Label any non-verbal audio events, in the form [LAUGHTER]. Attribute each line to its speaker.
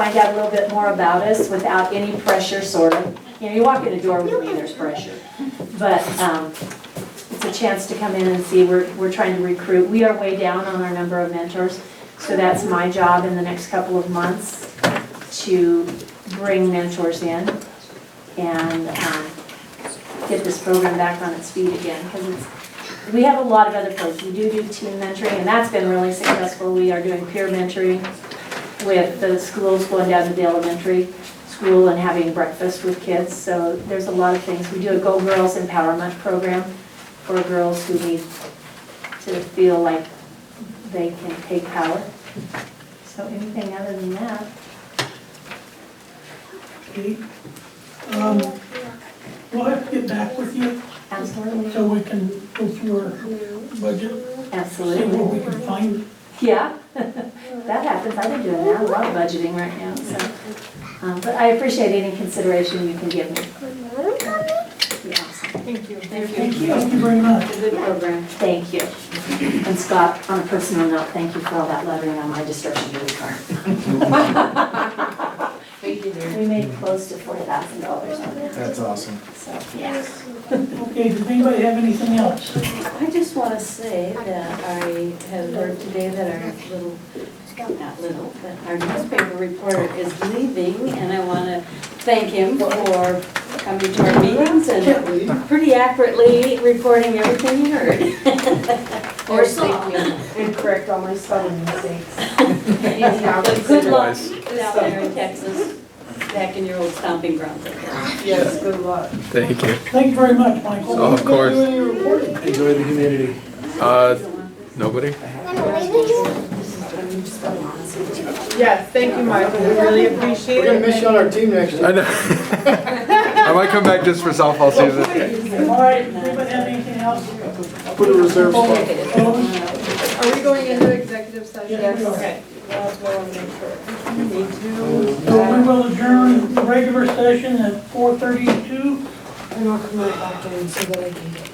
Speaker 1: find out a little bit more about us without any pressure, sort of. You know, you walk in the door with me, there's pressure. But um, it's a chance to come in and see, we're, we're trying to recruit. We are way down on our number of mentors, so that's my job in the next couple of months to bring mentors in and um, get this program back on its feet again, because it's we have a lot of other programs. We do do team mentoring, and that's been really successful. We are doing peer mentoring with the schools going down to the elementary school and having breakfast with kids. So there's a lot of things. We do a Go Girls Empowerment Program for girls who need to feel like they can take power. So anything other than that?
Speaker 2: Okay. Um, We'll have to get back with you
Speaker 1: Absolutely.
Speaker 2: so we can go through our budget, see
Speaker 1: Absolutely.
Speaker 2: what we can find.
Speaker 1: Yeah, that happens. I've been doing that, a lot of budgeting right now, so. um, But I appreciate any consideration you can give me. Yeah, so
Speaker 3: Thank you.
Speaker 2: Thank you, thank you very much.
Speaker 3: It's a good program.
Speaker 1: Thank you. And Scott, on a personal note, thank you for all that lettering on my destruction of the car.
Speaker 3: [LAUGHS] Thank you, dear.
Speaker 1: We made close to four thousand dollars on that,
Speaker 4: That's awesome.
Speaker 1: so, yeah.
Speaker 2: Okay, does anybody have anything else?
Speaker 3: I just want to say that I have heard today that our little, not little, but our newspaper reporter is leaving, and I want to thank him for coming to our meetings and pretty accurately reporting everything he heard. Or saw.
Speaker 5: and correct all my spelling
Speaker 3: [LAUGHS]
Speaker 5: mistakes.
Speaker 3: Good luck down there in Texas, back in your old stomping grounds.
Speaker 5: Yes, good luck.
Speaker 6: Thank you.
Speaker 2: Thank you very much, Michael.
Speaker 6: Oh, of course.
Speaker 4: Enjoy the humidity.
Speaker 6: Uh, nobody?
Speaker 5: Yes, thank you, Michael, we really appreciate it.
Speaker 4: We're gonna miss you on our team next year.
Speaker 6: I know. [LAUGHS] I might come back just for softball season.
Speaker 2: All right, anybody have anything else?
Speaker 4: Put a reserve spot.
Speaker 2: Opposed?
Speaker 5: Are we going into executive session?
Speaker 2: Yes, we are.
Speaker 5: Okay. That's what I want to make sure.
Speaker 2: So we will adjourn the regular session at four thirty-two.
Speaker 5: I'm not coming back in so that I can get